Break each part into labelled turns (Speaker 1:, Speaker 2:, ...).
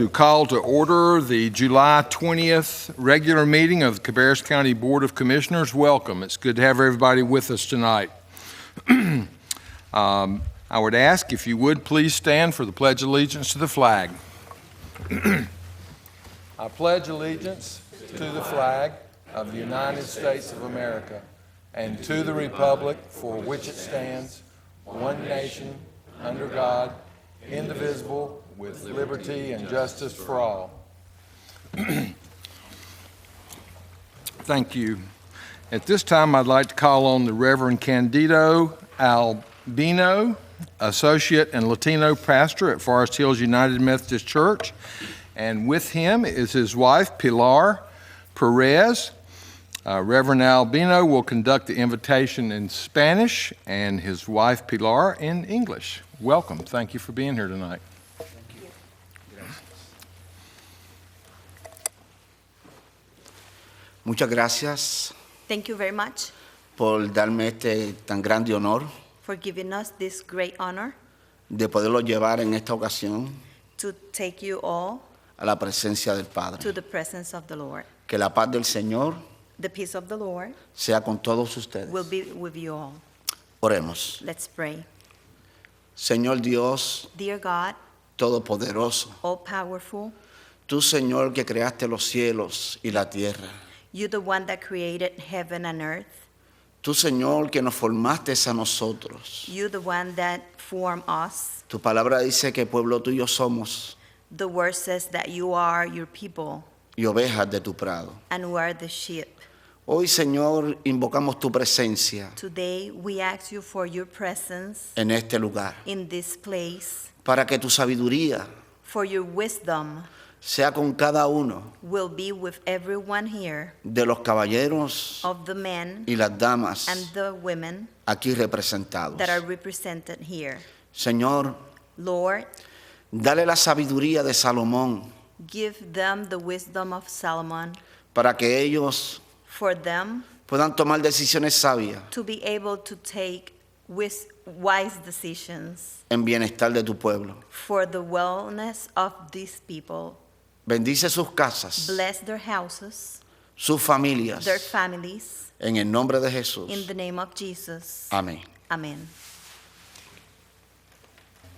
Speaker 1: To call to order the July 20th regular meeting of the Cabarrus County Board of Commissioners. Welcome. It's good to have everybody with us tonight. Um, I would ask if you would please stand for the Pledge of Allegiance to the flag. I pledge allegiance to the flag of the United States of America and to the republic for which it stands, one nation, under God, indivisible, with liberty and justice for all. Thank you. At this time, I'd like to call on the Reverend Candido Albino, Associate and Latino Pastor at Forest Hills United Methodist Church. And with him is his wife, Pilar Perez. Uh, Reverend Albino will conduct the invitation in Spanish and his wife, Pilar, in English. Welcome. Thank you for being here tonight.
Speaker 2: Muchas gracias
Speaker 3: Thank you very much
Speaker 2: por darme este tan grande honor
Speaker 3: for giving us this great honor
Speaker 2: de poderlo llevar en esta ocasión
Speaker 3: to take you all
Speaker 2: a la presencia del
Speaker 3: to
Speaker 2: Padre.
Speaker 3: the presence of the Lord.
Speaker 2: Que la paz del Señor
Speaker 3: The peace of the Lord
Speaker 2: sea con todos ustedes.
Speaker 3: will be with you all.
Speaker 2: Oremos.
Speaker 3: Let's pray.
Speaker 2: Señor Dios
Speaker 3: Dear God,
Speaker 2: Todopoderoso,
Speaker 3: all powerful,
Speaker 2: tú Señor que creaste los cielos y la tierra,
Speaker 3: you the one that created heaven and earth,
Speaker 2: tú Señor que nos formaste a nosotros.
Speaker 3: you the one that formed us.
Speaker 2: Tu palabra dice que pueblo tuyo somos
Speaker 3: The word says that you are your people
Speaker 2: y ovejas de tu prado.
Speaker 3: and we are the sheep.
Speaker 2: Hoy Señor invocamos tu presencia
Speaker 3: Today we ask you for your presence
Speaker 2: en este lugar
Speaker 3: in this place,
Speaker 2: para que tu sabiduría
Speaker 3: for your wisdom
Speaker 2: sea con cada uno
Speaker 3: will be with everyone here.
Speaker 2: de los caballeros
Speaker 3: of the men
Speaker 2: y las damas
Speaker 3: and the women
Speaker 2: aquí representados.
Speaker 3: that are represented here.
Speaker 2: Señor,
Speaker 3: Lord,
Speaker 2: dale la sabiduría de Salomón
Speaker 3: give them the wisdom of Solomon
Speaker 2: para que ellos
Speaker 3: for them
Speaker 2: puedan tomar decisiones sabias
Speaker 3: to be able to take wis- wise decisions
Speaker 2: en bienestar de tu pueblo.
Speaker 3: for the wellness of these people.
Speaker 2: Bendice sus casas,
Speaker 3: Bless their houses,
Speaker 2: sus familias,
Speaker 3: their families,
Speaker 2: en el nombre de
Speaker 3: in
Speaker 2: Jesús.
Speaker 3: the name of Jesus.
Speaker 2: Amén.
Speaker 3: Amen.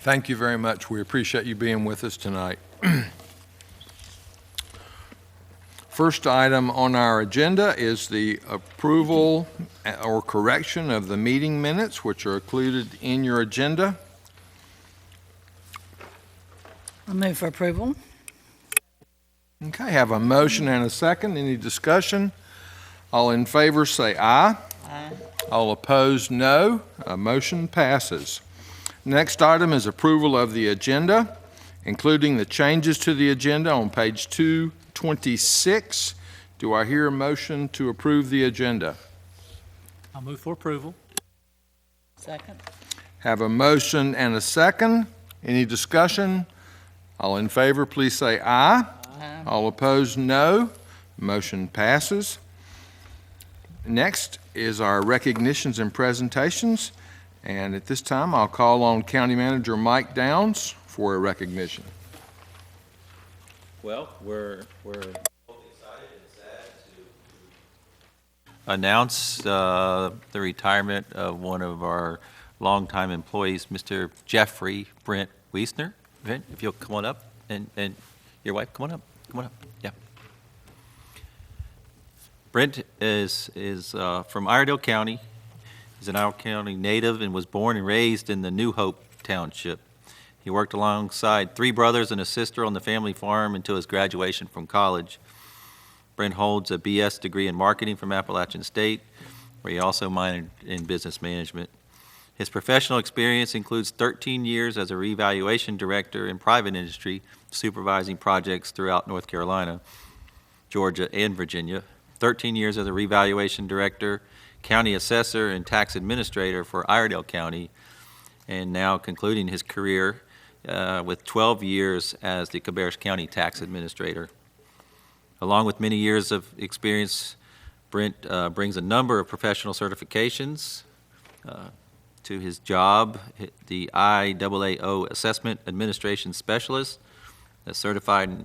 Speaker 1: Thank you very much. We appreciate you being with us tonight. First item on our agenda is the approval or correction of the meeting minutes, which are included in your agenda.
Speaker 4: I move for approval.
Speaker 1: Okay, have a motion and a second. Any discussion? All in favor, say aye. All opposed, no. A motion passes. Next item is approval of the agenda, including the changes to the agenda on page 226. Do I hear a motion to approve the agenda?
Speaker 5: I'll move for approval.
Speaker 4: Second.
Speaker 1: Have a motion and a second. Any discussion? All in favor, please say aye. All opposed, no. Motion passes. Next is our recognitions and presentations, and at this time, I'll call on County Manager Mike Downs for a recognition.
Speaker 6: Well, we're, we're. Excited and sad to. Announce uh, the retirement of one of our longtime employees, Mr. Jeffrey Brent Wiesner. Brent, if you'll come on up, and, and your wife, come on up, come on up, yeah. Brent is, is uh, from Iredell County. He's an Iredell County native and was born and raised in the New Hope Township. He worked alongside three brothers and a sister on the family farm until his graduation from college. Brent holds a BS degree in marketing from Appalachian State, where he also minored in business management. His professional experience includes 13 years as a revaluation director in private industry, supervising projects throughout North Carolina, Georgia, and Virginia, 13 years as a revaluation director, county assessor, and tax administrator for Iredell County, and now concluding his career uh, with 12 years as the Cabarrus County Tax Administrator. Along with many years of experience, Brent uh, brings a number of professional certifications uh, to his job, the IAAO Assessment Administration Specialist, that's certified